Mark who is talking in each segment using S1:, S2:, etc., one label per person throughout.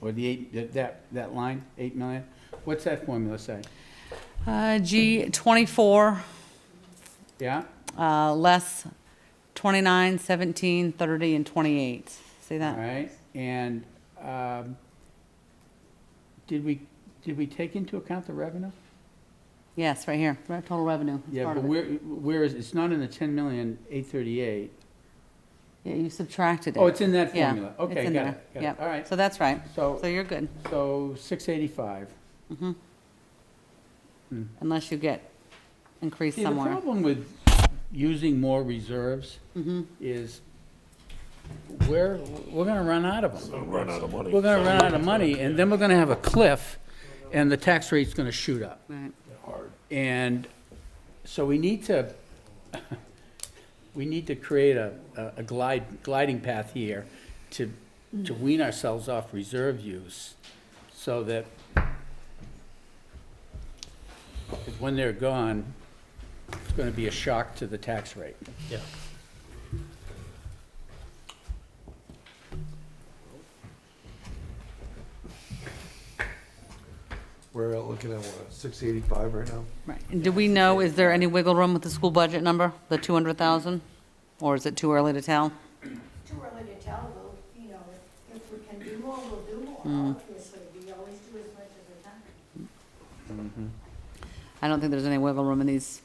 S1: or the eight, that- that, that line, eight million? What's that formula say?
S2: Uh, G, 24,
S1: Yeah?
S2: uh, less 29, 17, 30, and 28. See
S1: All
S2: that?
S1: right, and, um, did we, did we take into account the revenue?
S2: Yes, right here, Re- total revenue. It's
S1: Yeah,
S2: part
S1: but
S2: of it.
S1: where, where is, it's not in the ten million, eight thirty-eight.
S2: Yeah, you subtracted it.
S1: Oh, it's in that
S2: Yeah,
S1: formula.
S2: it's
S1: Okay,
S2: in
S1: got
S2: there.
S1: it, got it.
S2: Yep.
S1: All right,
S2: So that's right. So
S1: so,
S2: you're good,
S1: so six eighty-five.
S2: unless you get increased
S1: See, the
S2: somewhere.
S1: problem with using more reserves
S2: Mm-hmm.
S1: is we're, we're gonna run out of them.
S3: Run out of money.
S1: We're gonna run out of money, and then we're gonna have a cliff, and the tax rate's gonna shoot up.
S2: Right.
S1: And so we need to, we need to create a, a glide, gliding path here to, to wean ourselves off reserve use so that 'cause when they're gone, it's gonna be a shock to the tax rate.
S4: Yeah.
S3: We're looking at what, six eighty-five right now?
S2: Right. And do we know, is there any wiggle room with the school budget number, the 200,000? Or is it too early to tell?
S5: too early to tell, we'll, you know, if we can do more, we'll do
S1: Hmm.
S5: more, obviously, we always do as much as we can.
S2: I don't think there's any wiggle room in these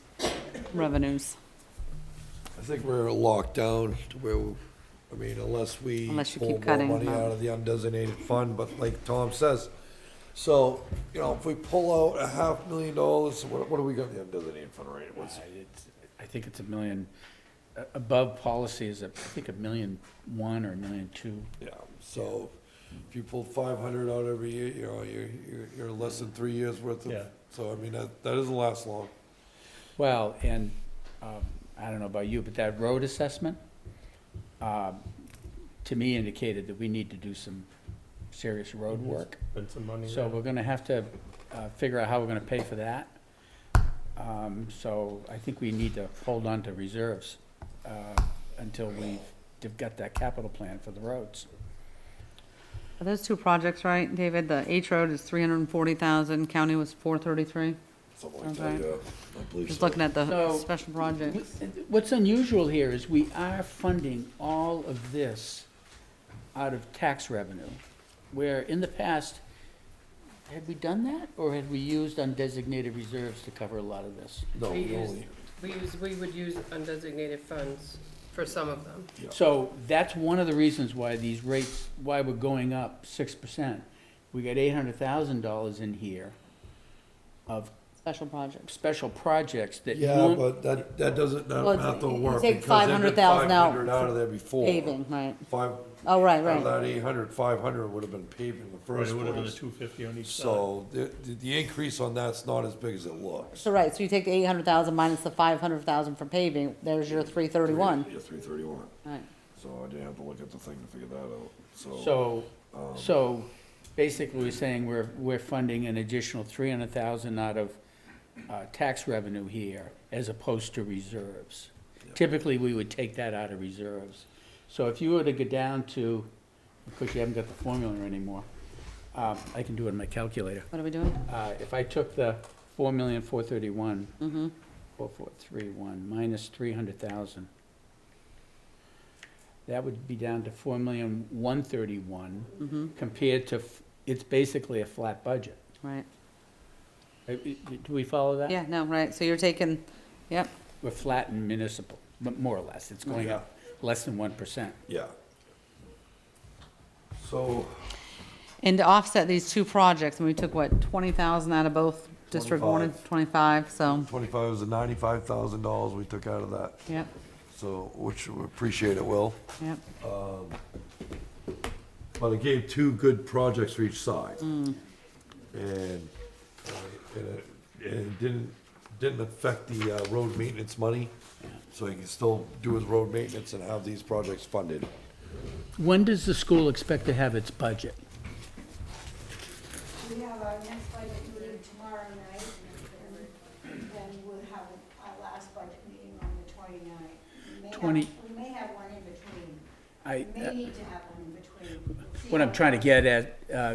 S2: revenues,
S3: I think we're locked down to where, we- I mean, unless we
S2: Unless you
S3: pull
S2: keep
S3: more
S2: cutting,
S3: money
S2: um,
S3: out of the undesignated fund, but like Tom says, so, you know, if we pull out a half million dollars, what, what do we got in the undesignated fund right? What's,
S1: It's- I think it's a million, a- above policy is, a- I think, a million one or a million two.
S3: yeah, so if you pull five hundred out every year, you know, you're, you're, you're less than three years worth
S4: Yeah.
S3: of, so I mean, that, that doesn't last long.
S1: Well, and, um, I don't know about you, but that road assessment, um, to me indicated that we need to do some serious road work.
S4: Put some money
S1: So
S4: there.
S1: we're gonna have to, uh, figure out how we're gonna pay for that. Um, so I think we need to hold on to reserves, uh, until we've they've got that capital plan for the roads.
S2: Are those two projects right, David? The H Road is three hundred and forty thousand, county was four thirty-three?
S3: Something like
S2: Sounds
S3: that,
S2: right.
S3: yeah. I believe
S2: Just
S3: so.
S2: looking at the
S1: So-
S2: special projects.
S1: What's unusual here is we are funding all of this out of tax revenue, where in the past, had we done that, or had we used undesignated reserves to cover a lot of this?
S3: No,
S6: We
S3: we
S6: use-
S3: only,
S6: We use, we would use undesignated funds for some of them.
S1: So that's one of the reasons why these rates, why we're going up six percent. We got eight hundred thousand dollars in here of
S2: Special projects.
S1: special projects that.
S3: yeah,
S1: norm-
S3: but that, that doesn't, that
S2: Well,
S3: math
S2: you
S3: don't work.
S2: take
S3: because they took
S2: 500,000 out
S3: 500 Out of there before.
S2: Paving, right.
S3: Five,
S2: Oh, right,
S3: out of
S2: right.
S3: that eight hundred, five hundred would have been paving the
S4: Right,
S3: first
S4: it would have been the
S3: place.
S4: two fifty on each side.
S3: So the, the- the increase on that's not as big as it looks.
S2: So, right, so you take the eight hundred thousand minus the five hundred thousand for paving, there's your three thirty-one.
S3: Yeah, three thirty-one.
S2: Right.
S3: So I didn't have to look at the thing to figure that out, so.
S1: So, so basically we're saying we're, we're funding an additional three hundred thousand out of, uh, tax revenue here as opposed to reserves. Typically, we would take that out of reserves. So if you were to go down to, of course, you haven't got the formula anymore. Um, I can do it in my calculator.
S2: What are we doing?
S1: Uh, if I took the four million, four thirty-one,
S2: Mm-hmm,
S1: four four three one, minus three hundred thousand, that would be down to four million, one
S2: mm-hmm.
S1: thirty-one, compared to, f- it's basically a flat budget.
S2: Right.
S1: Uh, i- i- Do we follow that?
S2: Yeah, no, right, so you're taking, yep,
S1: We're flat in municipal, but more or less, it's going up less than one percent.
S3: Yeah. So
S2: and to offset these two projects, and we took what, twenty thousand out of both District One and twenty-five, so,
S3: twenty-five was the ninety-five thousand dollars we took out of that,
S2: yep,
S3: so, which we appreciate it, Will.
S2: yep.
S3: But it gave two good projects for each side. And, uh, and it, and it didn't, didn't affect the uh, road maintenance money. So he can still do his road maintenance and have these projects funded.
S1: When does the school expect to have its budget?
S5: We have our next budget meeting tomorrow night, and then we'll have our last budget meeting on the twenty-ninth. We may have-
S1: 20
S5: We may have one in between,
S1: I, uh,
S5: we may need to have one in between. We'll see
S1: What I'm
S5: how-
S1: trying to get at uh,